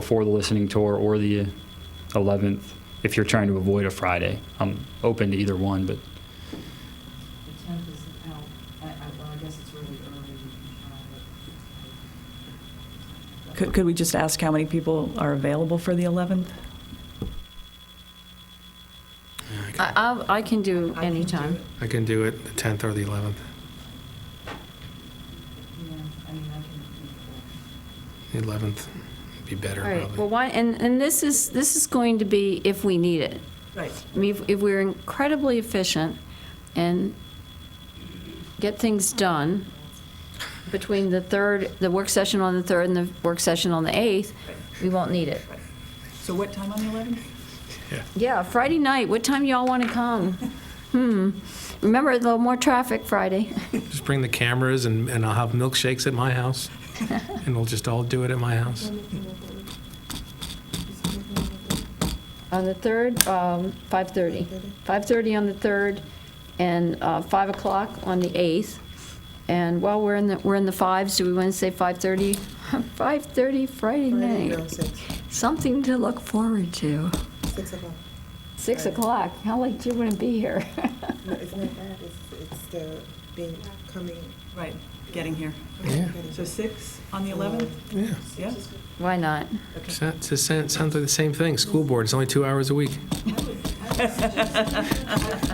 before the listening tour or the 11th, if you're trying to avoid a Friday. I'm open to either one, but The tenth is out, I, I, well, I guess it's really early, uh, but. Could, could we just ask how many people are available for the 11th? I, I'll- I can do I can do anytime. it. I can do it the 10th or the 11th. Yeah, I mean, I can do four. The 11th would be better, All right, well, probably. why, and, and this is, this is going to be if we need it. Right. I mean, if- if we're incredibly efficient and get things done between the third, the work session on the third and the work session on the eighth, we won't need it. So what time on the 11th? Yeah, Friday night, what time y'all want to come? Hmm, remember, a little more traffic Friday. Just bring the cameras and, and I'll have milkshakes at my house. And we'll just all do it at my house. On the third, um, 5:30. 5:30 on the third, and uh, 5 o'clock on the 8th. And while we're in the, we're in the fives, do we want to say 5:30? 5:30 Friday night. Six, Something to look forward to. 6 six o'clock. Right. o'clock, how late do you want to be here? No, it's not that, it's, it's the being, coming. Right, getting here. Yeah. So 6 on the 11th? Yeah. Yeah? Why not? So it's the same- Sounds like the same thing. School board, it's only two hours a week.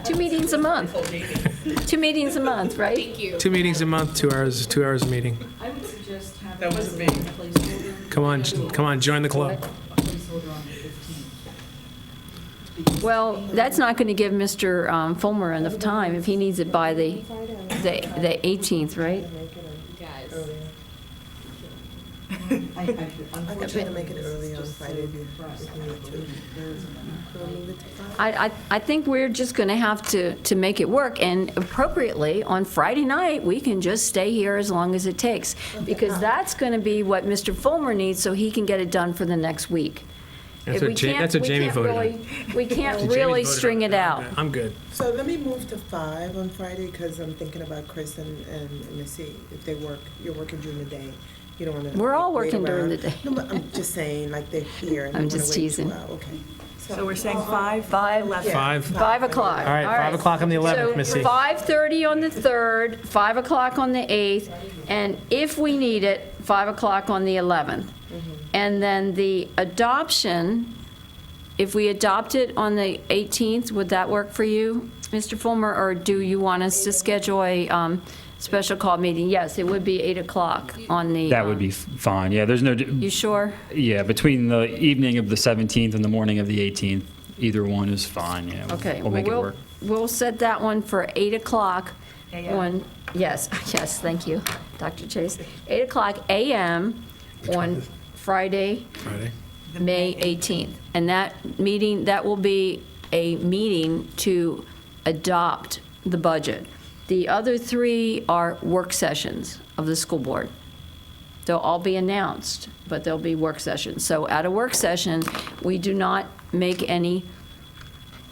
Two meetings a month. Two meetings a month, right? Two meetings a month, two hours, two hours a meeting. I would suggest having. That wasn't me. Placeholder, Come on, j- come on, join the club. placeholder on the fifteenth. Well, that's not going to give Mr. um, Fulmer enough time if he needs it by the, the the 18th, right? Guys. Earlier. I, I, I'm unfortunately. trying to make it this is early on just Friday so if you- compressed. if you need to. There isn't enough. We'll move it to five. I, I, I think we're just going to have to, to make it work, and appropriately, on Friday night, we can just stay here as long as it takes, because that's going to be what Mr. Fulmer needs, so he can get it done for the next week. That's If what we Ja- can't- that's what we Jamie can't voted on. really- We can't Jamie's really voted on string it out. I'm good. So let me move to five on Friday, because I'm thinking about Chris and, and Missy, if they work, you're working during the day. You don't want to. We're all working during the day. No, but I'm just saying, like, they're here. and I'm you wanna just wait two teasing. hours. Okay. So we're saying 5? 5, Yeah, 11. Five. Five o'clock. All right, five o'clock on the 11th, So Missy. 5:30 on the 3rd, 5 o'clock on the 8th, and if we need it, 5 o'clock on the 11th. And then the adoption, if we adopt it on the 18th, would that work for you, Mr. Fulmer? Or do you want us to schedule a um, special call meeting? Yes, it would be 8 o'clock on the. that would be um, f- fine. Yeah, there's no, You d- sure? yeah, between the evening of the 17th and the morning of the 18th, either one is fine, yeah. we'll- Okay. We'll make it well, work. We'll set that one for 8 o'clock on, yes, yes, thank you, Dr. Chase. 8 o'clock AM on Friday, Friday. May 18th. And that meeting, that will be a meeting to adopt the budget. The other three are work sessions of the school board. They'll all be announced, but they'll be work sessions. So at a work session, we do not make any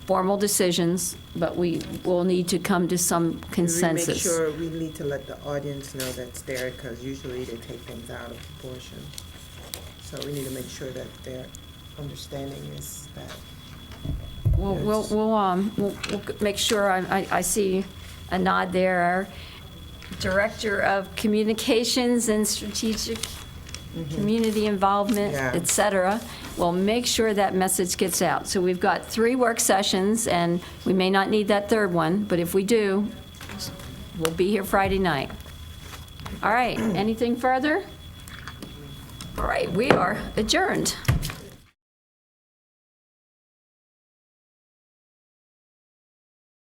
formal decisions, but we will need to come to some consensus. Make sure we need to let the audience know that's there, because usually they take things out of proportion. So we need to make sure that their understanding is that. We'll, we'll, we'll, um, we'll, we'll make sure, I, I- I see a nod there. Our Director of Communications and Strategic Community Involvement, Yeah. et cetera, will make sure that message gets out. So we've got three work sessions, and we may not need that third one, but if we do, we'll be here Friday night. All right, anything further? All right, we are adjourned.